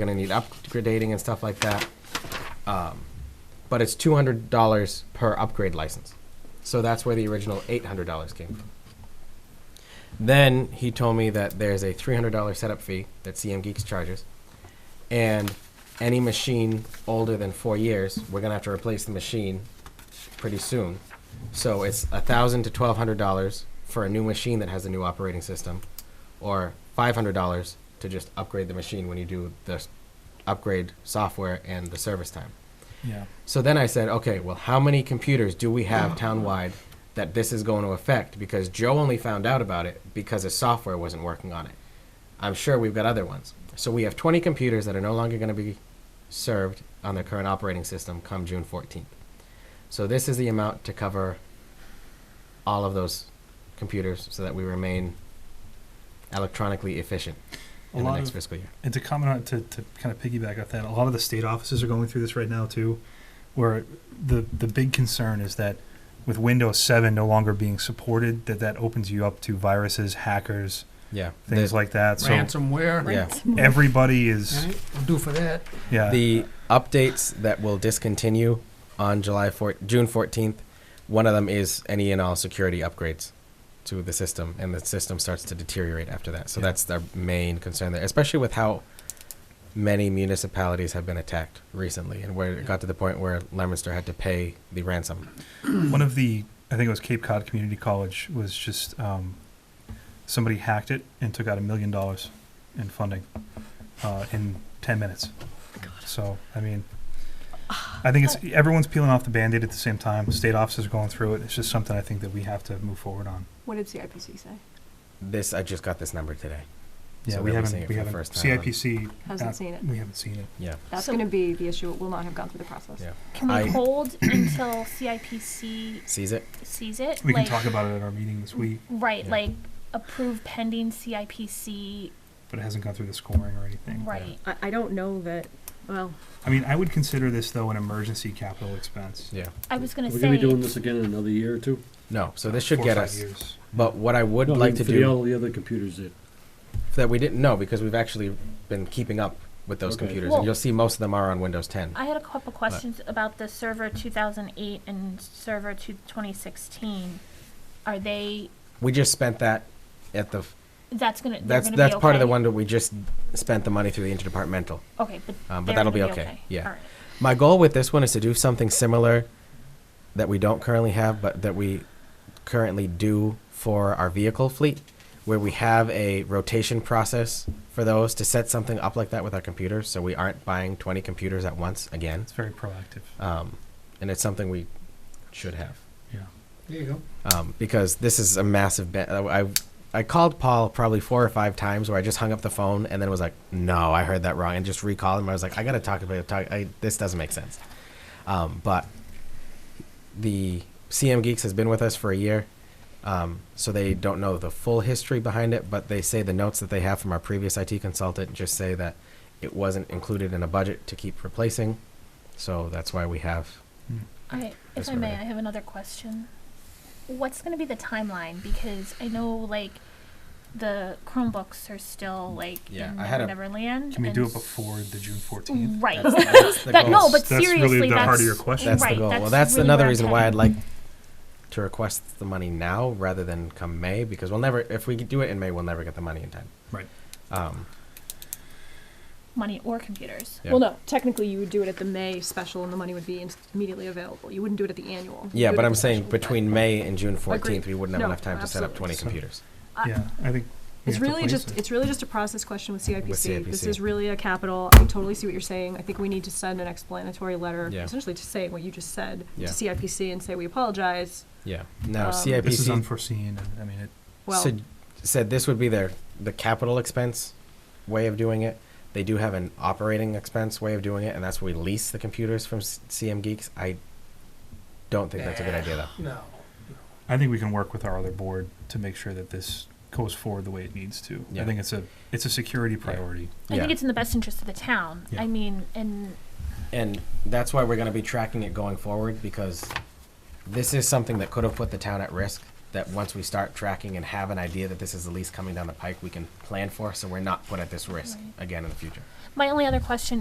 gonna need upgrading and stuff like that. Um, but it's two hundred dollars per upgrade license, so that's where the original eight hundred dollars came from. Then he told me that there's a three hundred dollar setup fee that CM Geeks charges, and any machine older than four years, we're gonna have to replace the machine pretty soon. So it's a thousand to twelve hundred dollars for a new machine that has a new operating system, or five hundred dollars to just upgrade the machine when you do the s- upgrade software and the service time. Yeah. So then I said, okay, well, how many computers do we Oh. have townwide that this is going to affect? Because Joe only found out about it because his software wasn't working on it. I'm sure we've got other ones. So we have 20 computers that are no longer going to be served on the current operating system come June 14th. So this is the amount to cover all of those computers so that we remain electronically efficient A in the lot next of- fiscal year. And to comment on to, to kind of piggyback off that, a lot of the state offices are going through this right now too, where the the big concern is that with Windows 7 no longer being supported, that that opens you up to viruses, hackers, Yeah. things the, like that. So ransomware. Yeah. everybody is Right? We'll do for that. yeah. the updates that will discontinue on July 4, June 14th, one of them is any and all security upgrades to the system, and the system starts to deteriorate after that. So Yeah. that's their main concern there, especially with how many municipalities have been attacked recently, and where it got to the point where Leominster had to pay the ransom. one of the I think it was Cape Cod Community College was just um, somebody hacked it and took out a million dollars in funding uh, in ten minutes. So I mean, I think it's everyone's peeling off the band-aid at the same time. State offices are going through it. It's just something I think that we have to move forward on. What did CIPC say? This I just got this number today. Yeah, So we we'll be haven't seeing it we for the haven't first time. CIPC. Hasn't uh, seen it. We haven't seen it. Yeah. That's So- going to be the issue. It will not have gone through the process. Yeah. Can we I- hold until CIPC Sees it? sees it? We can like, talk about it at our meeting this week, Right, Yeah. like approve pending CIPC. but it hasn't gone through the scoring or anything. Right. I, I don't know that. Well, I mean, I would consider this though an emergency capital expense. Yeah. I was gonna We're say. gonna be doing this again in another year or two? No. So this Four should or get five us. years. But what I would No, I like mean, to for do. the- all the other computers that, that we didn't know because we've actually been keeping up with those Okay. computers, Well- and you'll see most of them are on Windows 10. I had a couple questions about the server 2008 and server two- 2016. Are they? We just spent that at the. That's gonna. they're That's gonna that's be part of the okay? one that we just spent the money through the interdepartmental. Okay, but. Um, but they're that'll gonna be okay, yeah. All right. My goal with this one is to do something similar that we don't currently have, but that we currently do for our vehicle fleet, where we have a rotation process for those to set something up like that with our computers, so we aren't buying 20 computers at once again. It's very proactive. Um, and it's something we should have. Yeah. There you go. um, because this is a massive. Ba- I I called Paul probably four or five times where I just hung up the phone and then was like, "No, I heard that wrong," and just recalled him. I was like, "I gotta talk about talk. I, this doesn't make sense." Um, but the CM Geeks has been with us for a year, um, so they don't know the full history behind it. But they say the notes that they have from our previous IT consultant just say that it wasn't included in a budget to keep replacing, so that's why we have I, That's if I what I may, I did. have another question. What's going to be the timeline? Because I know like the Chromebooks are still like Yeah, in I had a- Neverland. Can we and do it s- before the June fourteenth? Right. That's- that's the That- goal. no, but That's really seriously, the that's heart of your question. That's right, the goal. That's well, that's really another where I'm reason why I'd heading. like to request the money now rather than come May because we'll never, if we do it in May, we'll never get the money in time. Right. Um, money or computers. Yeah. well, no. Technically, you would do it at the May special, and the money would be in- immediately available. You wouldn't do it at the annual. You'd yeah, do it but at I'm the saying special. between May and June 14th, Agreed. we wouldn't have No, enough time to set up 20 absolutely. So- computers. I- Yeah, I think. we have It's to really place just, it. it's really just a process question with CIPC. This CIPC. is really a capital, I totally see what you're saying. I think we need to send an explanatory letter, Yeah. essentially to say what you just said to Yeah. CIPC and say, we apologize. Yeah. Now, Um, CIPC This is unforeseen, and I mean, it, Well, sug- said this would be their the capital expense way of doing it. They do have an operating expense way of doing it, and that's where we lease the computers from C- CM Geeks. I don't think that's a good idea, though. No. I think we can work with our other board to make sure that this goes forward the way it needs to. I Yeah. think it's a, it's a security priority. I Yeah. think it's in the best interest of the town. Yeah. I mean, and and that's why we're going to be tracking it going forward because this is something that could have put the town at risk that once we start tracking and have an idea that this is the lease coming down the pike, we can plan for, so we're not put at this risk Right. again in the future. My only other question